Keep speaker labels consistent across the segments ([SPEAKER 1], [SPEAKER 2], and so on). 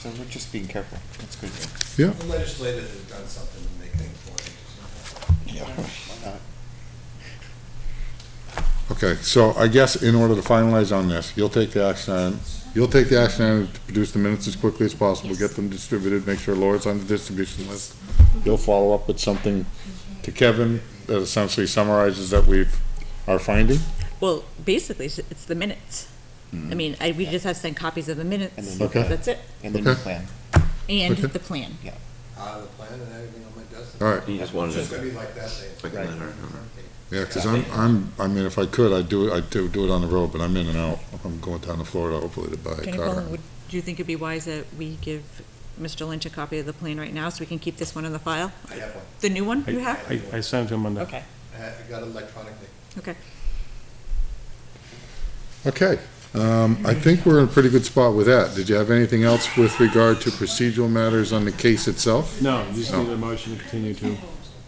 [SPEAKER 1] So we're just being careful. That's good.
[SPEAKER 2] Yeah,
[SPEAKER 3] The legislators have done something to make things more interesting.
[SPEAKER 2] okay, so I guess in order to finalize on this, you'll take the action item, you'll take the action item to produce the minutes as quickly as possible, get them distributed, make sure Laura's on the distribution list. You'll follow up with something to Kevin that essentially summarizes that we've, our finding.
[SPEAKER 4] Well, basically, it's- it's the minutes. I mean, I, we just have to send copies of the
[SPEAKER 1] And
[SPEAKER 4] minutes.
[SPEAKER 1] then-
[SPEAKER 2] Okay.
[SPEAKER 4] That's it.
[SPEAKER 1] And then the
[SPEAKER 2] Okay.
[SPEAKER 1] plan.
[SPEAKER 4] And
[SPEAKER 2] Okay.
[SPEAKER 4] the plan.
[SPEAKER 3] Uh, the plan and everything on my desk.
[SPEAKER 2] All right.
[SPEAKER 5] You just
[SPEAKER 3] It's
[SPEAKER 5] wanted
[SPEAKER 3] just gonna
[SPEAKER 5] to
[SPEAKER 3] be like that day.
[SPEAKER 5] quick
[SPEAKER 1] Right.
[SPEAKER 5] letter.
[SPEAKER 2] Yeah, because I'm, I'm, I mean, if I could, I'd do it, I'd do, do it on the road, but I'm in and out. I'm going down to Florida hopefully to buy a
[SPEAKER 4] Jenny
[SPEAKER 2] car.
[SPEAKER 4] Pollin, would, do you think it'd be wise that we give Mr. Lynch a copy of the plan right now so we can keep this one in the file?
[SPEAKER 3] I have one.
[SPEAKER 4] The new one you
[SPEAKER 6] I,
[SPEAKER 4] have?
[SPEAKER 6] I I sent him on the,
[SPEAKER 4] Okay,
[SPEAKER 3] I had- I got it electronically.
[SPEAKER 4] okay.
[SPEAKER 2] Okay, um, I think we're in a pretty good spot with that. Did you have anything else with regard to procedural matters on the case itself?
[SPEAKER 6] no, you just need a motion to continue to.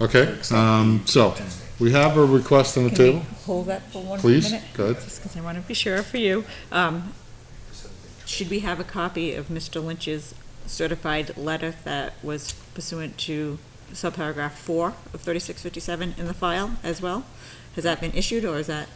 [SPEAKER 2] Okay, um, so, we have a request on the
[SPEAKER 4] Can we
[SPEAKER 2] table,
[SPEAKER 4] hold that for one minute?
[SPEAKER 2] please, go ahead.
[SPEAKER 4] Just because I want to be sure for you. Um, Should we have a copy of Mr. Lynch's certified letter that was pursuant to subparagraph four of thirty-six fifty-seven in the file as well? Has that been issued, or is that?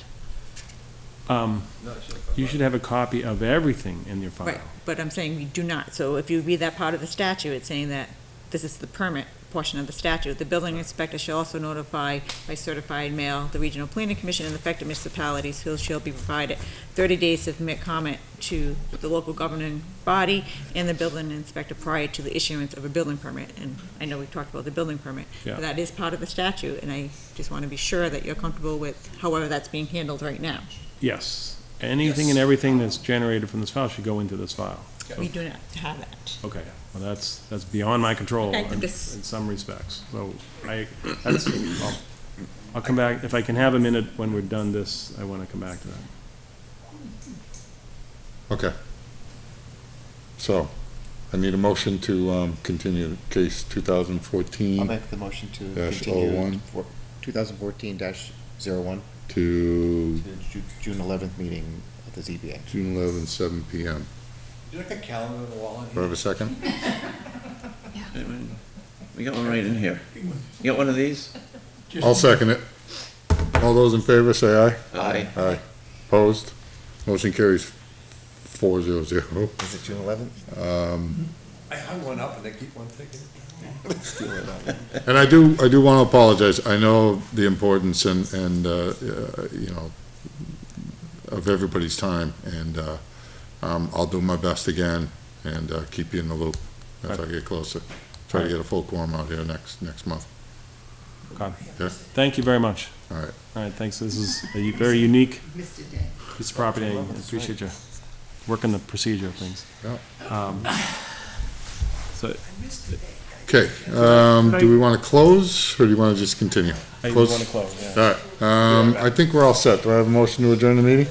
[SPEAKER 6] Um,
[SPEAKER 3] No, I should have.
[SPEAKER 6] you should have a copy of everything in your file.
[SPEAKER 4] Right, but I'm saying we do not. So if you read that part of the statute, it's saying that this is the permit portion of the statute. The building inspector shall also notify by certified mail the regional planning commission and affected municipalities who shall be provided thirty days to submit comment to the local governing body and the building inspector prior to the issuance of a building permit. And I know we talked about the building permit.
[SPEAKER 6] Yeah.
[SPEAKER 4] but That is part of the statute, and I just want to be sure that you're comfortable with however that's being handled right now.
[SPEAKER 6] Yes, anything and everything that's generated from this file should go into this file.
[SPEAKER 4] We do not have that.
[SPEAKER 6] Okay, well, that's, that's beyond my control
[SPEAKER 4] Okay,
[SPEAKER 6] in
[SPEAKER 4] I'm
[SPEAKER 6] in
[SPEAKER 4] just-
[SPEAKER 6] some respects. So I, that's, I'll, I'll come back, if I can have a minute when we're done this, I want to come back to that.
[SPEAKER 2] Okay. So, I need a motion to, um, continue case two thousand
[SPEAKER 1] I'll
[SPEAKER 2] fourteen
[SPEAKER 1] make the motion to
[SPEAKER 2] Dash
[SPEAKER 1] continue.
[SPEAKER 2] 01.
[SPEAKER 1] for- 2014 dash 01
[SPEAKER 2] to
[SPEAKER 1] to Ju- June 11th meeting of the ZBA.
[SPEAKER 2] June eleventh, seven P M.
[SPEAKER 3] Do you like a calendar on the wall in
[SPEAKER 2] Do I have
[SPEAKER 3] here?
[SPEAKER 2] a second?
[SPEAKER 5] We got one right in here. You got one of these?
[SPEAKER 2] I'll second it. All those in favor, say
[SPEAKER 5] Aye.
[SPEAKER 2] aye. Aye. Opposed? Motion carries four zero zero.
[SPEAKER 1] Is it June 11th?
[SPEAKER 3] I hung one up and they keep one ticking.
[SPEAKER 2] And I do, I do want to apologize. I know the importance and, and, uh, uh, you know, of everybody's time, and, uh, um, I'll do my best again and, uh, keep you in the loop as I get closer. Try to get a full quorum out here next, next month.
[SPEAKER 6] Okay.
[SPEAKER 2] Yes.
[SPEAKER 6] Thank you very much.
[SPEAKER 2] All right.
[SPEAKER 6] All right, thanks, this is a u- very unique piece of property, I appreciate you working the procedure of things. Um, So,
[SPEAKER 2] Okay, um, do we want to close, or do you want to just continue?
[SPEAKER 6] I
[SPEAKER 2] Close.
[SPEAKER 6] want to close, yeah.
[SPEAKER 2] All right, um, I think we're all set. Do I have a motion to adjourn the meeting?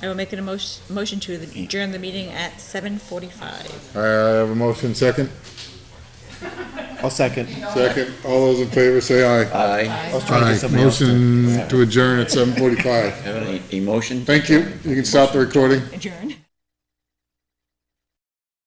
[SPEAKER 4] I will make an emotion, motion to adjourn the meeting at seven forty-five.
[SPEAKER 2] I have a motion, second?
[SPEAKER 1] I'll second.
[SPEAKER 2] Second. All those in favor, say aye.
[SPEAKER 5] Aye.
[SPEAKER 1] I was trying to
[SPEAKER 2] Aye.
[SPEAKER 1] get somebody else to-
[SPEAKER 2] Motion to adjourn at seven forty-five.
[SPEAKER 5] Have an e- emotion?
[SPEAKER 2] Thank you. You can stop the recording.
[SPEAKER 4] Adjourn.